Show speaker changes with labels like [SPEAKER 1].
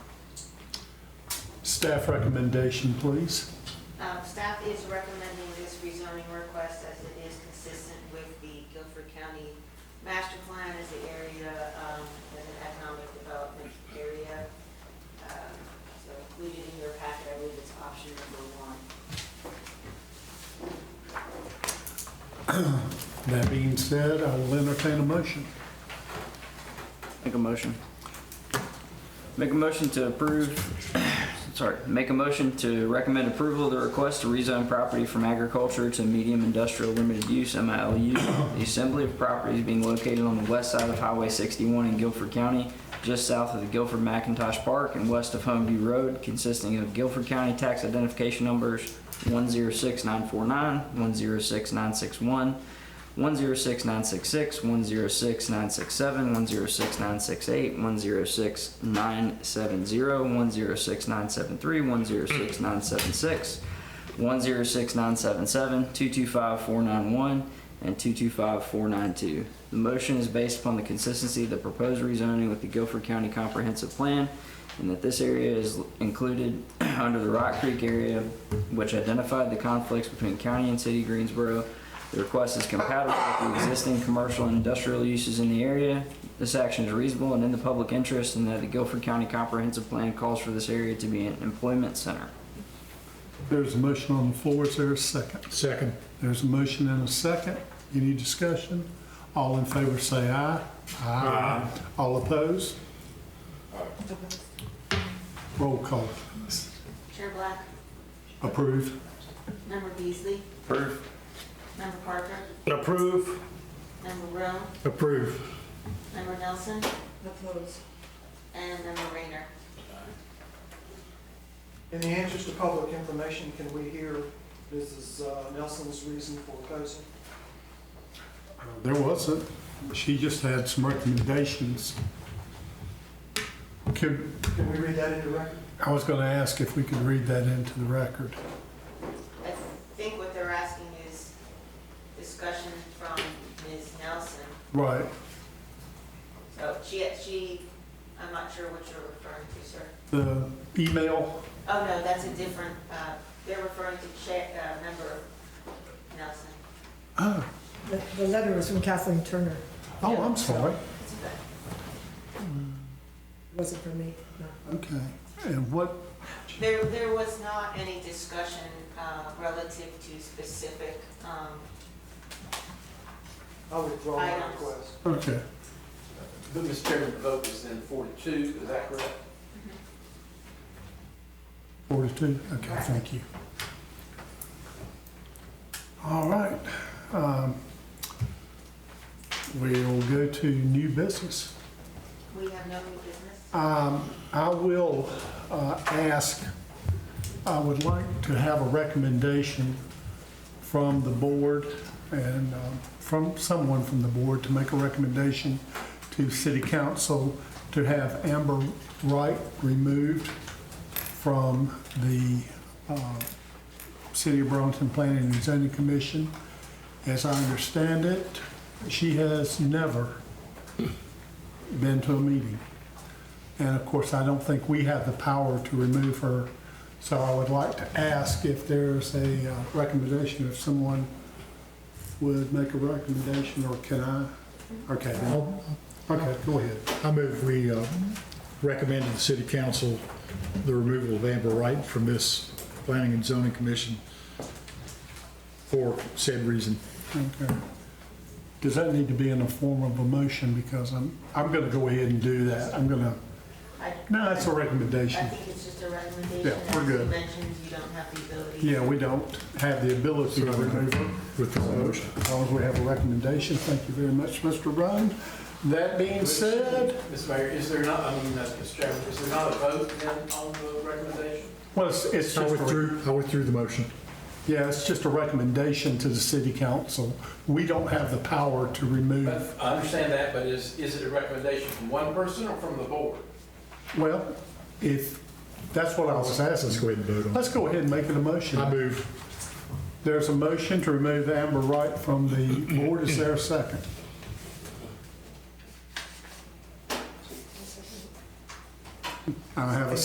[SPEAKER 1] Staff recommendation, please.
[SPEAKER 2] Um, Staff is recommending this rezoning request as it is consistent with the Guilford County Master Plan as the area, um, as an economic development area. Um, So included in your packet, I believe it's option number one.
[SPEAKER 1] That being said, I will entertain a motion.
[SPEAKER 3] Make a motion. Make a motion to approve, sorry, make a motion to recommend approval of the request to rezone property from agriculture to medium industrial limited use, MILU. The assembly of properties being located on the west side of Highway 61 in Guilford County, just south of the Guilford McIntosh Park and west of Homeview Road, consisting of Guilford County tax identification numbers 106949, 106961, 106966, 106967, 106968, 106970, 106973, 106976, 106977, 225491, and 225492. The motion is based upon the consistency of the proposed rezoning with the Guilford County Comprehensive Plan and that this area is included under the Rock Creek area, which identified the conflicts between county and city Greensboro. The request is compatible with the existing commercial and industrial uses in the area. This action is reasonable and in the public interest, and that the Guilford County Comprehensive Plan calls for this area to be an employment center.
[SPEAKER 1] There's a motion on the floor, is there a second?
[SPEAKER 4] Second.
[SPEAKER 1] There's a motion and a second. Any discussion? All in favor say aye. Aye. All opposed? Roll call.
[SPEAKER 2] Chair Black,
[SPEAKER 1] Approve.
[SPEAKER 2] Member Beasley,
[SPEAKER 4] Approve.
[SPEAKER 2] Member Parker,
[SPEAKER 4] Approve.
[SPEAKER 2] Member Rowe,
[SPEAKER 4] Approve.
[SPEAKER 2] Member Nelson. Opposed. And Member Rayner.
[SPEAKER 5] In the interest of public information, can we hear Mrs. Nelson's reason for opposing?
[SPEAKER 1] There wasn't. She just had some recommendations. Could,
[SPEAKER 5] Can we read that into record?
[SPEAKER 1] I was gonna ask if we could read that into the record.
[SPEAKER 2] I think what they're asking is discussion from Ms. Nelson.
[SPEAKER 1] Right.
[SPEAKER 2] So she, she, I'm not sure what you're referring to, sir.
[SPEAKER 1] The email,
[SPEAKER 2] Oh, no, that's a different, uh, they're referring to Chair, uh, Member Nelson.
[SPEAKER 1] oh,
[SPEAKER 6] The the letter was from Kathleen Turner.
[SPEAKER 1] oh, I'm sorry.
[SPEAKER 2] It's okay.
[SPEAKER 6] It wasn't from me. no.
[SPEAKER 1] Okay. And what,
[SPEAKER 2] There, there was not any discussion uh, relative to specific, um,
[SPEAKER 5] I withdraw my
[SPEAKER 2] Items.
[SPEAKER 5] request.
[SPEAKER 1] okay.
[SPEAKER 7] But, Mr. Chairman, the vote was then four to two, is that correct?
[SPEAKER 1] Forty-two, okay, thank you. All right. um, We'll go to new business.
[SPEAKER 2] we have no new business.
[SPEAKER 1] Um, I will uh, ask, I would like to have a recommendation from the board and um, from someone from the board to make a recommendation to city council to have Amber Wright removed from the uh, City of Burlington Planning and Zoning Commission. As I understand it, she has never been to a meeting. And of course, I don't think we have the power to remove her. So I would like to ask if there's a uh, recommendation, if someone would make a recommendation, or can I? Okay, then. okay, go ahead.
[SPEAKER 4] I move we uh, recommend to the city council the removal of Amber Wright from this planning and zoning commission for said reason.
[SPEAKER 1] Okay. Does that need to be in the form of a motion? Because I'm, I'm going to go ahead and do that. I'm going to,
[SPEAKER 2] I-
[SPEAKER 1] no, that's a
[SPEAKER 2] I
[SPEAKER 1] recommendation.
[SPEAKER 2] think it's just a recommendation.
[SPEAKER 1] Yeah, we're
[SPEAKER 2] As
[SPEAKER 1] good.
[SPEAKER 2] you mentioned, you don't have the ability.
[SPEAKER 1] Yeah, we don't have the ability to remove her.
[SPEAKER 4] With the motion.
[SPEAKER 1] As long as we have a recommendation, thank you very much, Mr. Ryan. That being said,
[SPEAKER 7] Mr. Mayor, is there not, I mean, uh, Mr. Chairman, is there not a vote then on the recommendation?
[SPEAKER 1] well, it's it's
[SPEAKER 4] I
[SPEAKER 1] just a
[SPEAKER 4] withdrew, I withdrew the motion.
[SPEAKER 1] Yeah, it's just a recommendation to the city council. We don't have the power to remove,
[SPEAKER 7] But I understand that, but is, is it a recommendation from one person or from the board?
[SPEAKER 1] well, if, that's what I was
[SPEAKER 4] Let's
[SPEAKER 1] asking.
[SPEAKER 4] go ahead and vote on
[SPEAKER 1] Let's go ahead and make it a
[SPEAKER 4] it. I
[SPEAKER 1] motion.
[SPEAKER 4] move.
[SPEAKER 1] There's a motion to remove Amber Wright from the board. Is there a second? I have a